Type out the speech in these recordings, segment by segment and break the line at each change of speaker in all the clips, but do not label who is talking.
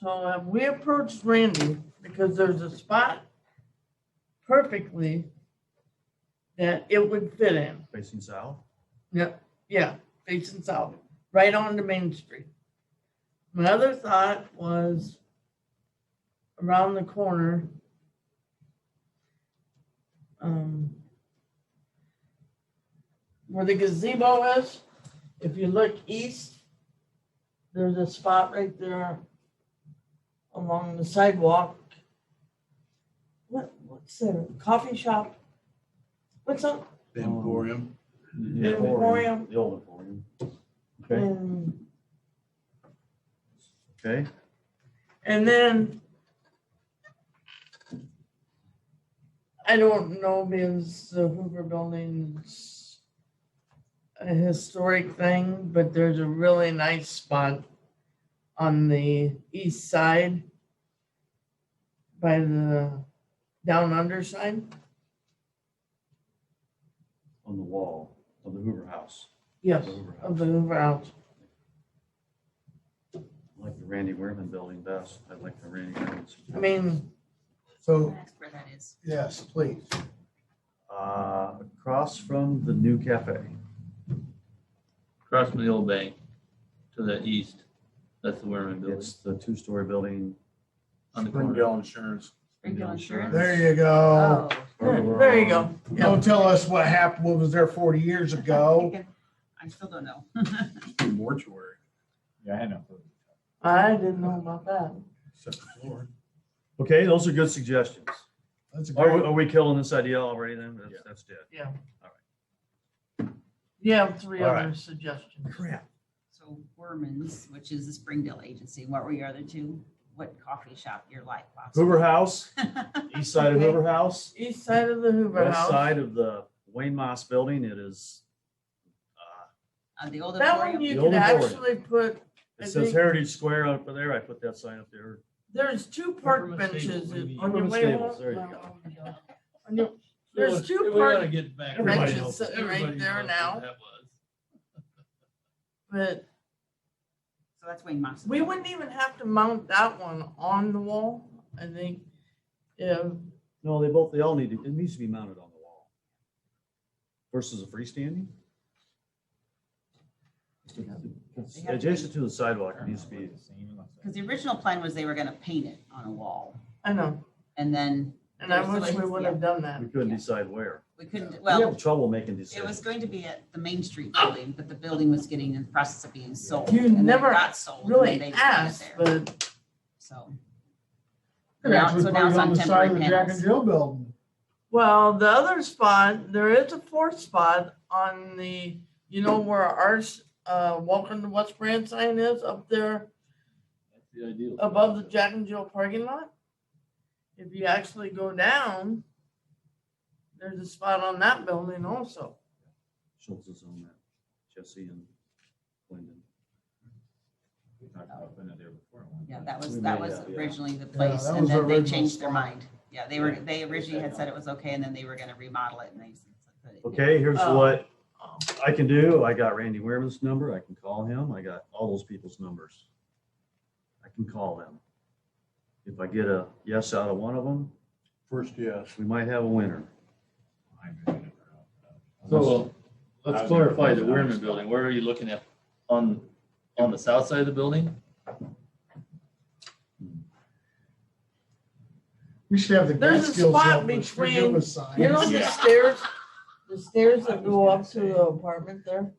So uh, we approached Randy because there's a spot perfectly that it would fit in.
facing south.
Yep. Yeah, facing south, right on the main street. My other thought was around the corner. Um, where the gazebo is, if you look east, there's a spot right there along the sidewalk. What what's there? Coffee shop? What's up?
The
Um,
Emporium.
The
Emporium.
The old Emporium. Okay,
And
okay.
And then I don't know because the Hoover Building's a historic thing, but there's a really nice spot on the east side by the down under side.
On the wall of the Hoover House.
Yes,
The Hoover
of
House.
the Hoover House.
I Like the Randy Wehrman building best. I like the Randy Wehrman's.
I mean,
So,
That's where that is.
yes, please.
Uh, across from the new cafe.
across from the old bank to the east. That's the Werman building
It's the two-story building.
on the corner.
Springdale Insurance.
Springfield
Insurance.
Insurance.
There you go.
Oh.
there Hmm, there you go. Yeah.
Don't tell us what happened, what was there 40 years ago.
I still don't know.
Mortuary.
Yeah, I know.
I didn't know about that.
Second floor.
Okay, those are good suggestions.
That's a
Oh,
Are, we-
great,
are we killing this idea already then? That's, that's dead.
You have three
All
other
right.
suggestions.
Crap.
So Werman's, which is the Springdale agency, what were your other two? What coffee shop your life?
Hoover House,
Uh,
east side of Hoover House,
East side of the Hoover
west
House.
side of the Wayne Moss building. It is, uh,
Uh, the old
That one
Emporium.
you
The
could
old Emporium.
actually put, I
It says
think-
Heritage Square up there. I put that sign up there.
there's two park
Government
benches
stables, we
in-
need-
on your
Government
way
stables,
home.
there you
On your- There's two
We
park-
gotta get back.
Everybody
Everybody
knows.
knows
sitting right
what
there now.
That was.
But
So that's Wayne Moss.
we wouldn't even have to mount that one on the wall, I think. Yeah,
No, they both, they all need to, it needs to be mounted on the wall. Versus a freestanding? It's Adjacent to the sidewalk, it needs to be,
Because the original plan was they were gonna paint it on a wall
I know,
and then
and I
There's
wish we
ways,
would have done that.
we couldn't decide where.
we couldn't,
We
well,
have trouble making
it was
decisions.
going to be at the Main Street building, but the building was getting in the process of being sold.
You
and then it
never
Got sold. and then
Really
they just put it
asked,
there.
but
So.
could
Now-
actually
so
put
now
it
it's
on
on
the side of
temporary
the Jack and
panels.
Jill building.
well, the other spot, there is a fourth spot on the, you know where ours, uh, welcome to West Branch sign is up there.
That's the ideal.
above the Jack and Jill parking lot. If you actually go down, there's a spot on that building also.
Schultz is on that, Jesse and Wyndham.
We talked about putting it there before.
Yeah, that was,
We
that
may
was
have, yeah.
originally the place,
that
and
was the
then they
original
changed their
spot.
mind. Yeah, they were, they originally had said it was okay, and then they were gonna remodel it, and they. said that-
Okay, here's
Oh.
what I can do. I got Randy Wehrman's number. I can call him. I got all those people's numbers. I can call them. If I get a yes out of one of them,
First, yes.
we might have a winner.
So
I
let's
was-
clarify the Werman building. Where are you looking at? On, on the south side of the building?
We should have the.
There's a
Catskills
spot
up with
between-
Forgive us
You know
signs.
the stairs, the stairs that go up to the apartment there?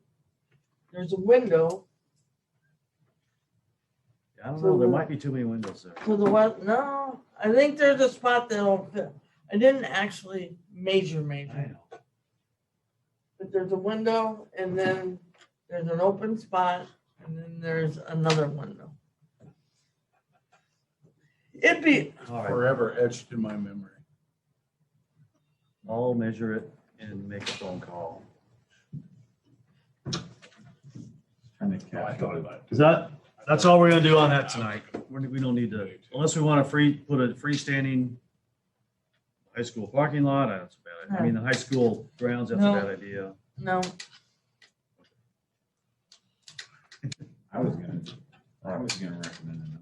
There's a window
I don't know. There might be too many windows there.
to the west, no, I think there's a spot that'll fit. I didn't actually major
I
major,
know.
but there's a window and then there's an open spot and then there's another window. It'd be,
All right,
Forever etched in my memory.
I'll measure it and make a phone call.
Oh, I thought about it.
Is that, that's all we're gonna do on that tonight. We're- We don't need to, unless we want to free, put a freestanding high school parking lot. That's a bad. I mean, the high school grounds, that's a
No.
bad idea.
no,
I was gonna, I was gonna recommend another